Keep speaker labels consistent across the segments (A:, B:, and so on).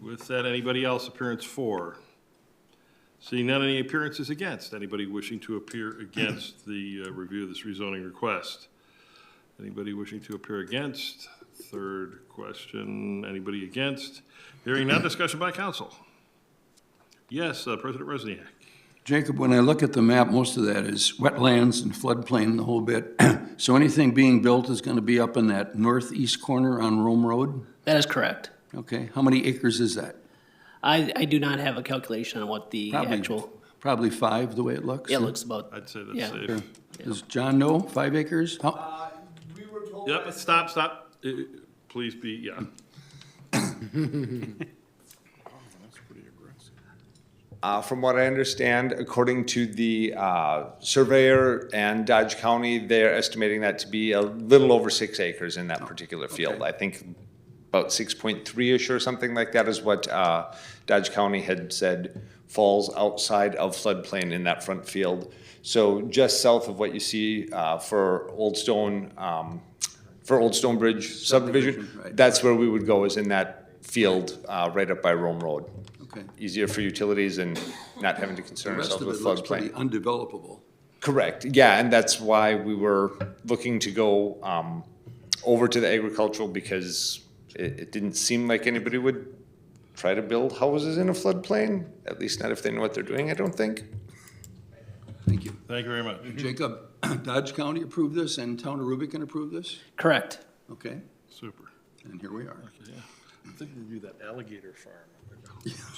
A: With that, anybody else, appearance for? Seeing none, any appearances against? Anybody wishing to appear against the uh, review of this rezoning request? Anybody wishing to appear against? Third question, anybody against? Hearing none, discussion by council. Yes, uh, President Resniak.
B: Jacob, when I look at the map, most of that is wetlands and floodplain, the whole bit. So anything being built is going to be up in that northeast corner on Rome Road?
C: That is correct.
B: Okay, how many acres is that?
C: I, I do not have a calculation on what the
B: Probably-
C: actual,
B: Probably five, the way it looks?
C: yeah, it looks about,
A: I'd say
C: Yeah.
A: that's safe.
B: Does John know, five acres? How-
D: We were told.
A: Yep, stop, stop. Uh, Please be, yeah.
D: Uh, from what I understand, according to the, uh, surveyor and Dodge County, they're estimating that to be a little over six acres in that particular field. I think about six point three-ish or something like that is what, uh, Dodge County had said falls outside of floodplain in that front field. So just south of what you see, uh, for Old Stone, um, for Old Stone Bridge subdivision,
B: Subdivision, right.
D: that's where we would go is in that field, uh, right up by Rome Road
B: Okay.
D: easier for utilities and not having to concern
B: The rest
D: ourselves
B: of it
D: with
B: looks pretty
D: floodplain.
B: undevelopable.
D: Correct, yeah, and that's why we were looking to go um, over to the agricultural because it, it didn't seem like anybody would try to build houses in a floodplain, at least not if they know what they're doing, I don't think.
B: Thank you.
A: Thank you very much.
B: Jacob, Dodge County approved this and Town of Rubicon approved this?
C: correct.
B: Okay,
A: Super.
B: and here we are.
A: I think we do that alligator farm.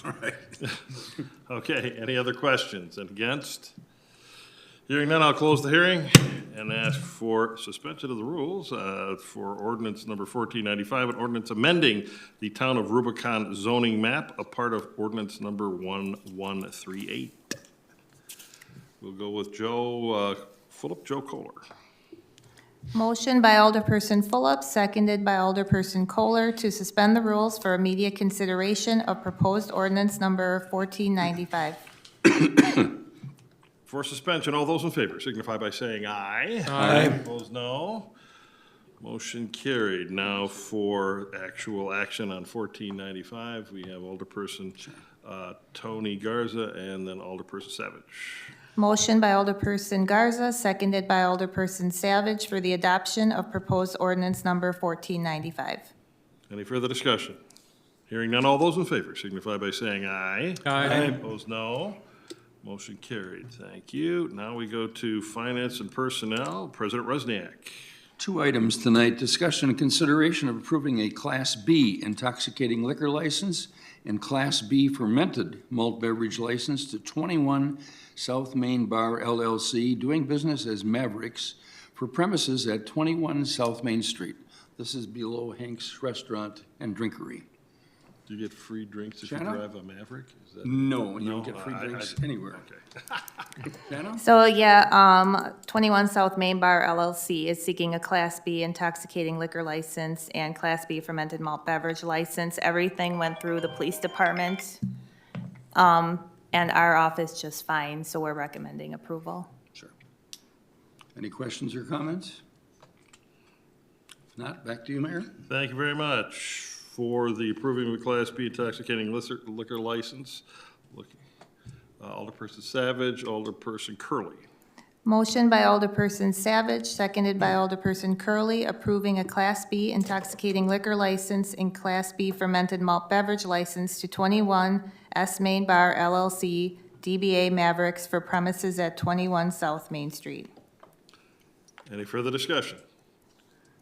B: All right.
A: Okay, any other questions and against? Hearing none, I'll close the hearing and ask for suspension of the rules uh, for ordinance number 1495, an ordinance amending the town of Rubicon zoning map, a part of ordinance number 1138. We'll go with Joe, uh, Philip Joe Kohler.
E: Motion by Alderperson Fulop, seconded by Alderperson Kohler to suspend the rules for immediate consideration of proposed ordinance number 1495.
A: For suspension, all those in favor signify by saying aye. Aye. Opposed, no. Motion carried. Now for actual action on fourteen ninety-five, we have Alderperson uh, Tony Garza and then Alderperson Savage.
E: Motion by Alderperson Garza, seconded by Alderperson Savage for the adoption of proposed ordinance number 1495.
A: Any further discussion? Hearing none, all those in favor signify by saying aye. Aye. Opposed, no. Motion carried. Thank you. Now we go to Finance and Personnel. President Rusniak.
B: Two items tonight, discussion and consideration of approving a Class B intoxicating liquor license and Class B fermented malt beverage license to 21 South Main Bar LLC, doing business as Mavericks, for premises at 21 South Main Street. This is below Hank's Restaurant and Drinkery.
A: Do you get free drinks if you
B: Shanna?
A: drive a Maverick? Is that?
B: No, you don't
A: No,
B: get free
A: I- I-
B: drinks anywhere.
A: Okay.
B: Dano?
E: So, yeah, um, 21 South Main Bar LLC is seeking a Class B intoxicating liquor license and Class B fermented malt beverage license. Everything went through the police department, um, and our office just fine, so we're recommending approval.
B: Sure. Any questions or comments? If not, back to you, Mayor.
A: Thank you very much for the approving of a Class B intoxicating liquor liquor license. Look, uh, Alderperson Savage, Alderperson Curley.
E: Motion by Alderperson Savage, seconded by Alderperson Curley, approving a Class B intoxicating liquor license and Class B fermented malt beverage license to 21 S Main Bar LLC, DBA Mavericks for premises at 21 South Main Street.
A: Any further discussion?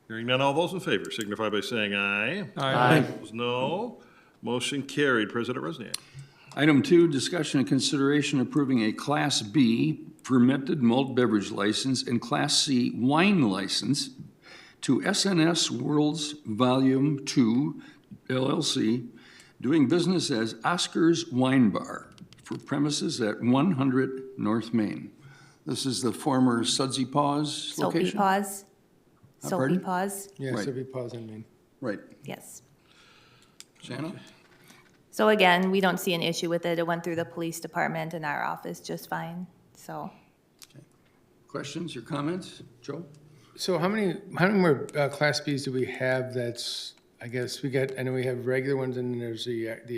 A: Hearing none, all those in favor signify by saying aye.
C: Aye.
A: Opposed, no. Motion carried. President Rusniak.
B: Item two, discussion and consideration approving a Class B fermented malt beverage license and Class C wine license to SNS World's Volume Two LLC, doing business as Oscar's Wine Bar for premises at one hundred North Main. This is the former Sudsy Paws
E: Soapy
B: location?
E: pause. Soapy
B: pardon?
E: pause,
F: Yeah,
B: Right.
F: so we pause in Maine.
B: Right.
E: yes.
B: Shannon?
E: So again, we don't see an issue with it. It went through the police department and our office just fine, so.
B: Questions or comments? Joe?
F: So how many, how many more uh, Class Bs do we have that's, I guess, we got, I know we have regular ones and then there's the, uh, the